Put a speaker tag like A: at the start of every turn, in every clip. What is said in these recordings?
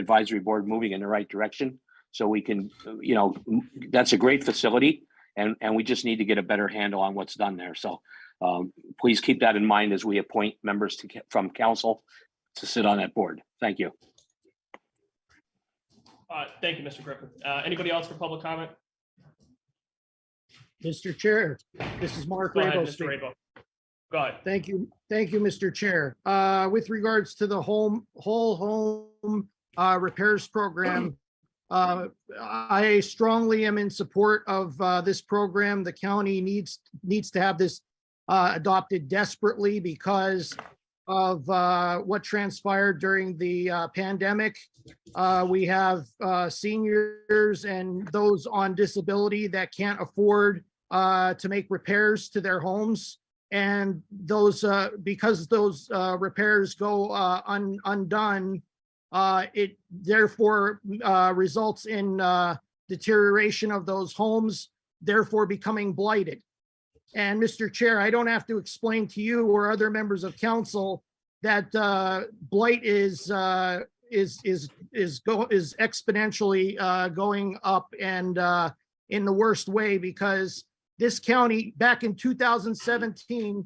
A: advisory board moving in the right direction. So we can, you know, m- that's a great facility and, and we just need to get a better handle on what's done there. So um, please keep that in mind as we appoint members to, ca- from council to sit on that board. Thank you.
B: Uh, Thank you, Mr. Griffin. Uh, Anybody else for public comment?
C: Mr. Chair, this is Mark
B: Go ahead,
C: Rabel
B: Mr.
C: speaking.
B: Rabel. Go ahead.
C: Thank you, thank you, Mr. Chair. Uh, With regards to the home, whole home uh, repairs program, uh, I strongly am in support of uh, this program. The county needs, needs to have this uh, adopted desperately because of uh, what transpired during the uh, pandemic. Uh, We have uh, seniors and those on disability that can't afford uh, to make repairs to their homes. And those, uh, because those, uh, repairs go, uh, un- undone, uh, it therefore, uh, results in, uh, deterioration of those homes, therefore becoming blighted. And Mr. Chair, I don't have to explain to you or other members of council that, uh, blight is, uh, is, is, is go, is exponentially, uh, going up and, uh, in the worst way because this county back in two thousand seventeen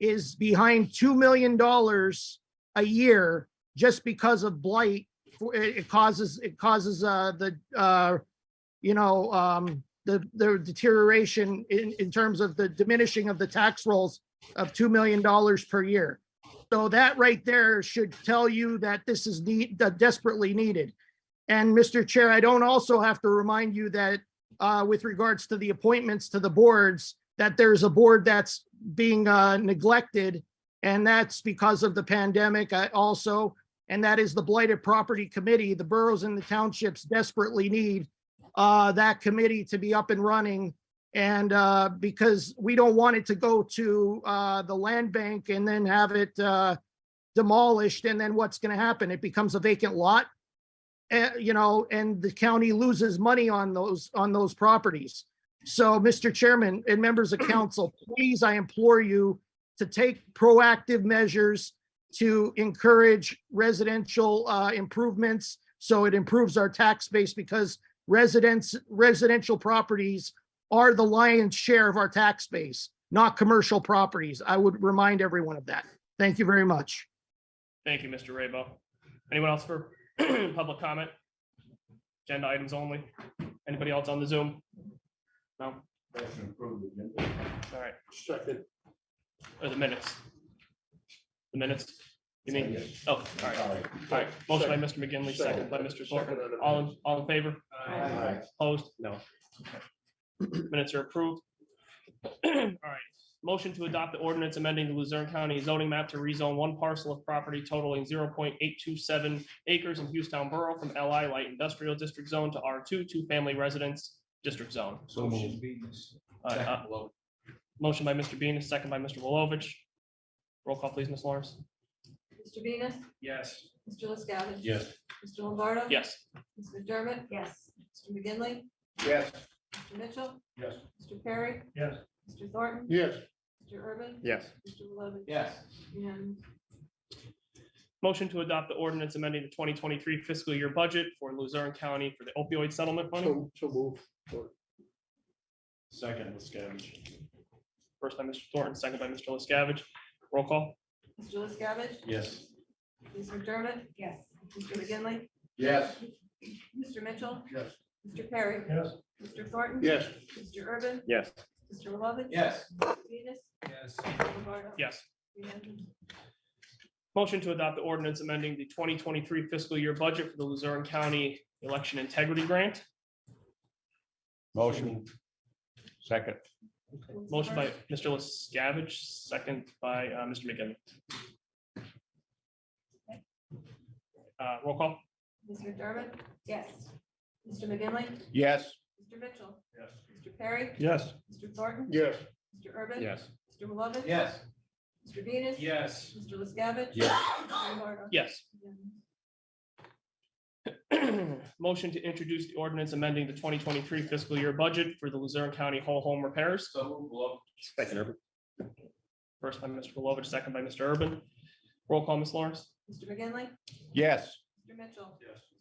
C: is behind two million dollars a year just because of blight. For- It it causes, it causes uh the uh, you know, um, the the deterioration in in terms of the diminishing of the tax rolls of two million dollars per year. So that right there should tell you that this is need that desperately needed. And Mr. Chair, I don't also have to remind you that uh, with regards to the appointments to the boards, that there's a board that's being uh, neglected, and that's because of the pandemic uh, also, and that is the Blighted Property Committee. The boroughs and the townships desperately need uh, that committee to be up and running. And uh, because we don't want it to go to uh, the land bank and then have it uh, demolished, and then what's going to happen? It becomes a vacant lot eh, you know, and the county loses money on those, on those properties. So, Mr. Chairman and members of council, please, I implore you to take proactive measures to encourage residential uh, improvements, so it improves our tax base because residents, residential properties are the lion's share of our tax base, not commercial properties. I would remind everyone of that. Thank you very much.
B: Thank you, Mr. Rabel. Anyone else for public comment? Agenda items only. Anybody else on the Zoom? No?
D: Motion approved agenda.
B: All right.
D: Second.
B: Or the minutes? The minutes? You mean?
D: Second.
B: Oh, all right. All right. Motion by Mr. McGinley, second by Mr. Thornton. All, in- all in favor?
D: Aye.
B: Opposed? No. Minutes are approved. All right, motion to adopt the ordinance amending the Luzerne County zoning map to rezone one parcel of property totaling zero point eight two seven acres in Houston Borough from LI Light Industrial District Zone to R two, two family residence district zone.
D: So moved.
B: Uh, uh, Motion by Mr. Bean, a second by Mr. Wilovich. Roll call, please, Ms. Lawrence.
E: Mr. Venus,
B: Yes.
E: Mr. LaScavitch.
D: Yes.
E: Mr. Lombardo.
B: Yes.
E: Ms. McDermott. Yes. Mr. McGinley,
D: Yes.
E: Mr. Mitchell,
D: Yes.
E: Mr. Perry,
D: Yes.
E: Mr. Thornton,
D: Yes.
E: Mr. Urban.
D: Yes.
E: Mr. Lovich.
D: Yes.
E: And
B: Motion to adopt the ordinance amending the twenty twenty-three fiscal year budget for Luzerne County for the opioid settlement fund.
D: So, so move. Second, let's go.
B: First by Mr. Thornton, second by Mr. LaScavitch. Roll call.
E: Mr. LaScavitch,
D: Yes.
E: Ms. McDermott. Yes. Mr. McGinley,
D: Yes.
E: Mr. Mitchell,
D: Yes.
E: Mr. Perry,
D: Yes.
E: Mr. Thornton.
D: Yes.
E: Mr. Urban,
D: Yes.
E: Mr. Lovich.
D: Yes.
E: Mr. Venus,
D: Yes.
E: Mr. Lombardo.
B: Yes.
E: And
B: Motion to adopt the ordinance amending the twenty twenty-three fiscal year budget for the Luzerne County Election Integrity Grant.
D: Motion. Second.
B: Motion by Mr. LaScavitch, second by uh, Mr. McGinn. Uh, Roll call.
E: Ms. McDermott. Yes. Mr. McGinley,
D: Yes.
E: Mr. Mitchell,
D: Yes.
E: Mr. Perry,
D: Yes.
E: Mr. Thornton,
D: Yes.
E: Mr. Urban.
D: Yes.
E: Mr. Lovich.
D: Yes.
E: Mr. Venus.
D: Yes.
E: Mr. LaScavitch.
D: Yes.
E: Mr. Lombardo.
B: Yes.
E: And
B: Motion to introduce the ordinance amending the twenty twenty-three fiscal year budget for the Luzerne County Whole Home Repairs.
D: So move. Second.
B: First by Mr. Lovich, second by Mr. Urban. Roll call, Ms. Lawrence.
E: Mr. McGinley,
D: Yes.
E: Mr. Mitchell,
D: Yes.